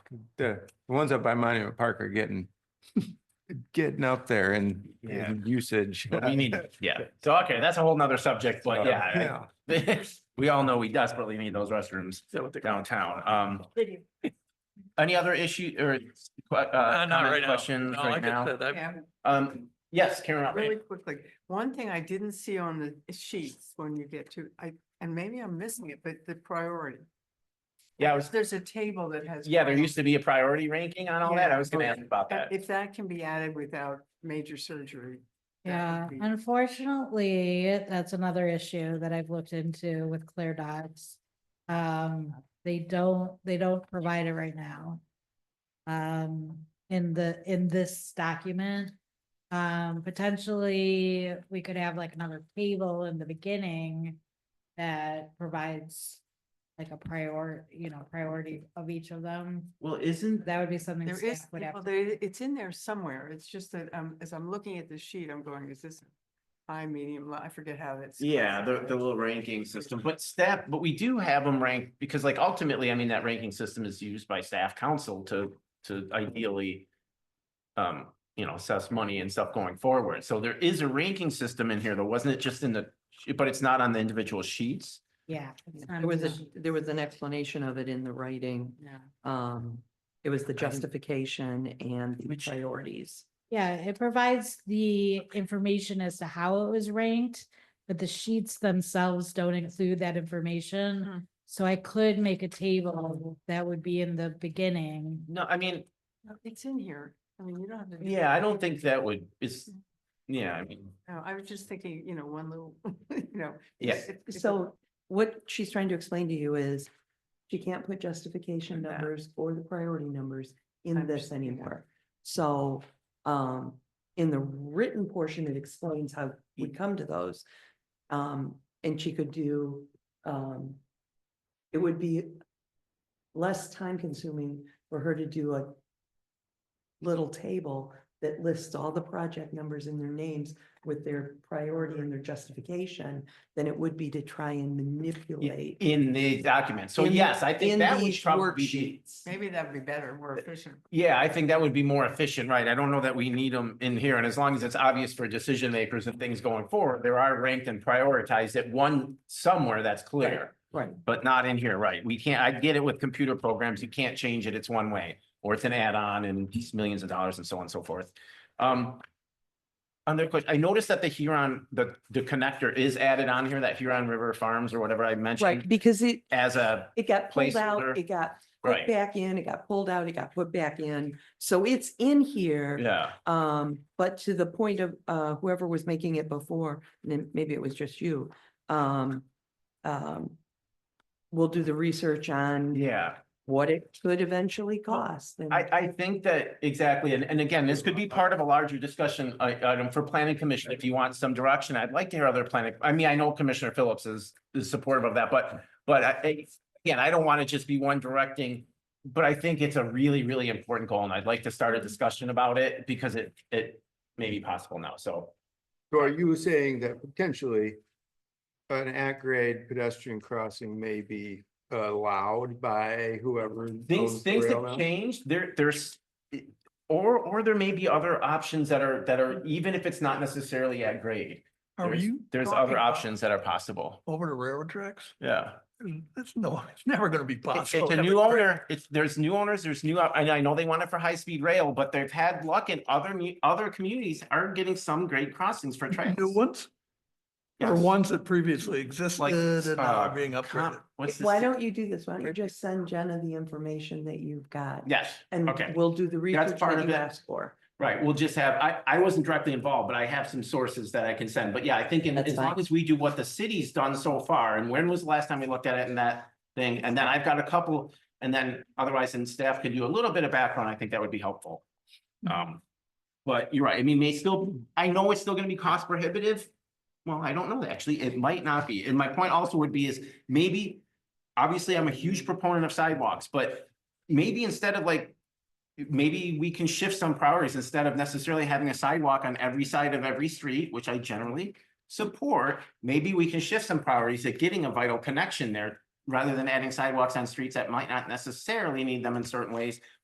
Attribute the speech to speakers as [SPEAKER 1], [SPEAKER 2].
[SPEAKER 1] the the ones up by Monument Park are getting, getting up there in,
[SPEAKER 2] Yeah.
[SPEAKER 1] in usage.
[SPEAKER 2] But we need, yeah. So, okay, that's a whole nother subject, but yeah,
[SPEAKER 1] Yeah.
[SPEAKER 2] I- we all know we desperately need those restrooms downtown. Um, any other issue or que- uh,
[SPEAKER 3] Uh, not
[SPEAKER 2] comments,
[SPEAKER 3] right now.
[SPEAKER 2] questions
[SPEAKER 3] No, like
[SPEAKER 2] right
[SPEAKER 3] I
[SPEAKER 2] now?
[SPEAKER 3] said, I-
[SPEAKER 4] Yeah,
[SPEAKER 2] Um, yes, Karen.
[SPEAKER 4] really
[SPEAKER 2] Update.
[SPEAKER 4] quickly, one thing I didn't see on the sheets when you get to, I, and maybe I'm missing it, but the priority.
[SPEAKER 2] Yeah, I was,
[SPEAKER 4] There's a table that has.
[SPEAKER 2] yeah, there used to be a priority ranking on all that. I was gonna ask about
[SPEAKER 4] Uh,
[SPEAKER 2] that.
[SPEAKER 4] If that can be added without major surgery. that
[SPEAKER 5] Yeah,
[SPEAKER 4] would be-
[SPEAKER 5] unfortunately, that's another issue that I've looked into with Clear Dots. Um, they don't, they don't provide it right now. Um, in the, in this document. Um, potentially, we could have like another table in the beginning that provides like a prior, you know, priority of each of them.
[SPEAKER 2] Well, isn't
[SPEAKER 5] That would be something
[SPEAKER 4] There is,
[SPEAKER 5] staff would have
[SPEAKER 4] well,
[SPEAKER 5] to
[SPEAKER 4] there, it's in there somewhere. It's just that, um, as I'm looking at the sheet, I'm going, is this high, medium, low? I forget how that's.
[SPEAKER 2] Yeah, the, the
[SPEAKER 4] classified.
[SPEAKER 2] little ranking system, but staff, but we do have them ranked, because like ultimately, I mean, that ranking system is used by staff council to, to ideally. Um, you know, assess money and stuff going forward, so there is a ranking system in here, though, wasn't it just in the, but it's not on the individual sheets?
[SPEAKER 5] Yeah. it's not
[SPEAKER 6] There was, a
[SPEAKER 5] easy.
[SPEAKER 6] there was an explanation of it in the writing.
[SPEAKER 5] Yeah.
[SPEAKER 6] Um, it was the justification and the
[SPEAKER 2] Which-
[SPEAKER 6] priorities.
[SPEAKER 5] Yeah, it provides the information as to how it was ranked, but the sheets themselves don't include that
[SPEAKER 4] Hmm.
[SPEAKER 5] information. So I could make a table that would be in the beginning.
[SPEAKER 2] No, I mean,
[SPEAKER 4] No, It's in here. I mean, you don't have to. do
[SPEAKER 2] yeah, I
[SPEAKER 4] that.
[SPEAKER 2] don't think that would, is, yeah, I mean,
[SPEAKER 4] No, I was just thinking, you know, one little, you know.
[SPEAKER 2] Yeah.
[SPEAKER 4] if- if it-
[SPEAKER 6] So what she's trying to explain to you is she can't put justification
[SPEAKER 2] Yeah.
[SPEAKER 6] numbers or the priority numbers in this
[SPEAKER 4] Understand, yeah.
[SPEAKER 6] anymore. So, um, in the written portion, it explains how we come to those. Um, and she could do, um, it would be less time consuming for her to do a little table that lists all the project numbers and their names with their priority and their justification than it would be to try and manipulate.
[SPEAKER 2] in the document, so
[SPEAKER 6] in-
[SPEAKER 2] yes, I think
[SPEAKER 6] in
[SPEAKER 2] that would
[SPEAKER 6] these
[SPEAKER 2] probably be.
[SPEAKER 6] worksheets.
[SPEAKER 4] Maybe that'd be better, more efficient.
[SPEAKER 2] Yeah, I think that would be more efficient, right? I don't know that we need them in here, and as long as it's obvious for decision makers and things going forward, there are ranked and prioritized at one somewhere that's clear,
[SPEAKER 6] Right,
[SPEAKER 2] but not in here, right? We can't, I get it with computer programs, you can't change it, it's one way, or it's an add-on and it's millions of dollars and so on and so forth. Um, another question, I noticed that the Huron, the, the connector is added on here, that Huron River Farms or whatever I
[SPEAKER 6] right,
[SPEAKER 2] mentioned
[SPEAKER 6] because it,
[SPEAKER 2] as a,
[SPEAKER 6] it got pulled
[SPEAKER 2] Placeholder.
[SPEAKER 6] out, it got put
[SPEAKER 2] right,
[SPEAKER 6] back in, it got pulled out, it got put back in. So it's in here.
[SPEAKER 2] yeah.
[SPEAKER 6] Um, but to the point of, uh, whoever was making it before, and then maybe it was just you, um, um, we'll do the research on
[SPEAKER 2] Yeah.
[SPEAKER 6] what it could eventually cost. and-
[SPEAKER 2] I, I think that exactly, and, and again, this could be part of a larger discussion i- item for planning commission, if you want some direction, I'd like to hear other planning, I mean, I know Commissioner Phillips is, is supportive of that, but, but I- I, again, I don't want to just be one directing, but I think it's a really, really important goal, and I'd like to start a discussion about it, because it, it may be possible now, so.
[SPEAKER 1] So are you saying that potentially an at-grade pedestrian crossing may be allowed by whoever?
[SPEAKER 2] Things,
[SPEAKER 1] owns the
[SPEAKER 2] things
[SPEAKER 1] rail
[SPEAKER 2] have
[SPEAKER 1] now?
[SPEAKER 2] changed, there, there's, or, or there may be other options that are, that are, even if it's not necessarily at grade.
[SPEAKER 3] Are
[SPEAKER 2] There's-
[SPEAKER 3] you?
[SPEAKER 2] There's
[SPEAKER 3] talking
[SPEAKER 2] other
[SPEAKER 3] about
[SPEAKER 2] options that are possible.
[SPEAKER 3] Over the railroad tracks?
[SPEAKER 2] Yeah.
[SPEAKER 3] That's no, it's never gonna be
[SPEAKER 2] It's
[SPEAKER 3] possible.
[SPEAKER 2] it's a new owner. It's, there's new owners, there's new, op- and I know they want it for high-speed rail, but they've had luck in other, mu- other communities are getting some great crossings for tracks.
[SPEAKER 3] New ones? Or
[SPEAKER 2] Yes.
[SPEAKER 3] ones that previously existed
[SPEAKER 2] Like,
[SPEAKER 3] and now
[SPEAKER 2] uh,
[SPEAKER 3] are being
[SPEAKER 2] Com-
[SPEAKER 3] upgraded?
[SPEAKER 2] What's this?
[SPEAKER 6] Why don't you do this? Why don't you just send Jenna the information that you've got?
[SPEAKER 2] Yes,
[SPEAKER 6] And
[SPEAKER 2] okay.
[SPEAKER 6] we'll do the research
[SPEAKER 2] part
[SPEAKER 6] that
[SPEAKER 2] of
[SPEAKER 6] you
[SPEAKER 2] it.
[SPEAKER 6] asked for.
[SPEAKER 2] right. We'll just have, I, I wasn't directly involved, but I have some sources that I can send. But yeah, I think in-
[SPEAKER 6] That's
[SPEAKER 2] as long
[SPEAKER 6] fine.
[SPEAKER 2] as we do what the city's done so far, and when was the last time we looked at it in that thing? And then I've got a couple, and then otherwise, and staff can do a little bit of background. I think that would be helpful.
[SPEAKER 6] Mm-hmm.
[SPEAKER 2] Um, but you're right. I mean, may still, I know it's still gonna be cost prohibitive. Well, I don't know, actually. It might not be. And my point also would be is maybe, obviously, I'm a huge proponent of sidewalks, but maybe instead of like, maybe we can shift some priorities instead of necessarily having a sidewalk on every side of every street, which I generally support, maybe we can shift some priorities at getting a vital connection there rather than adding sidewalks on streets that might not necessarily need them in certain ways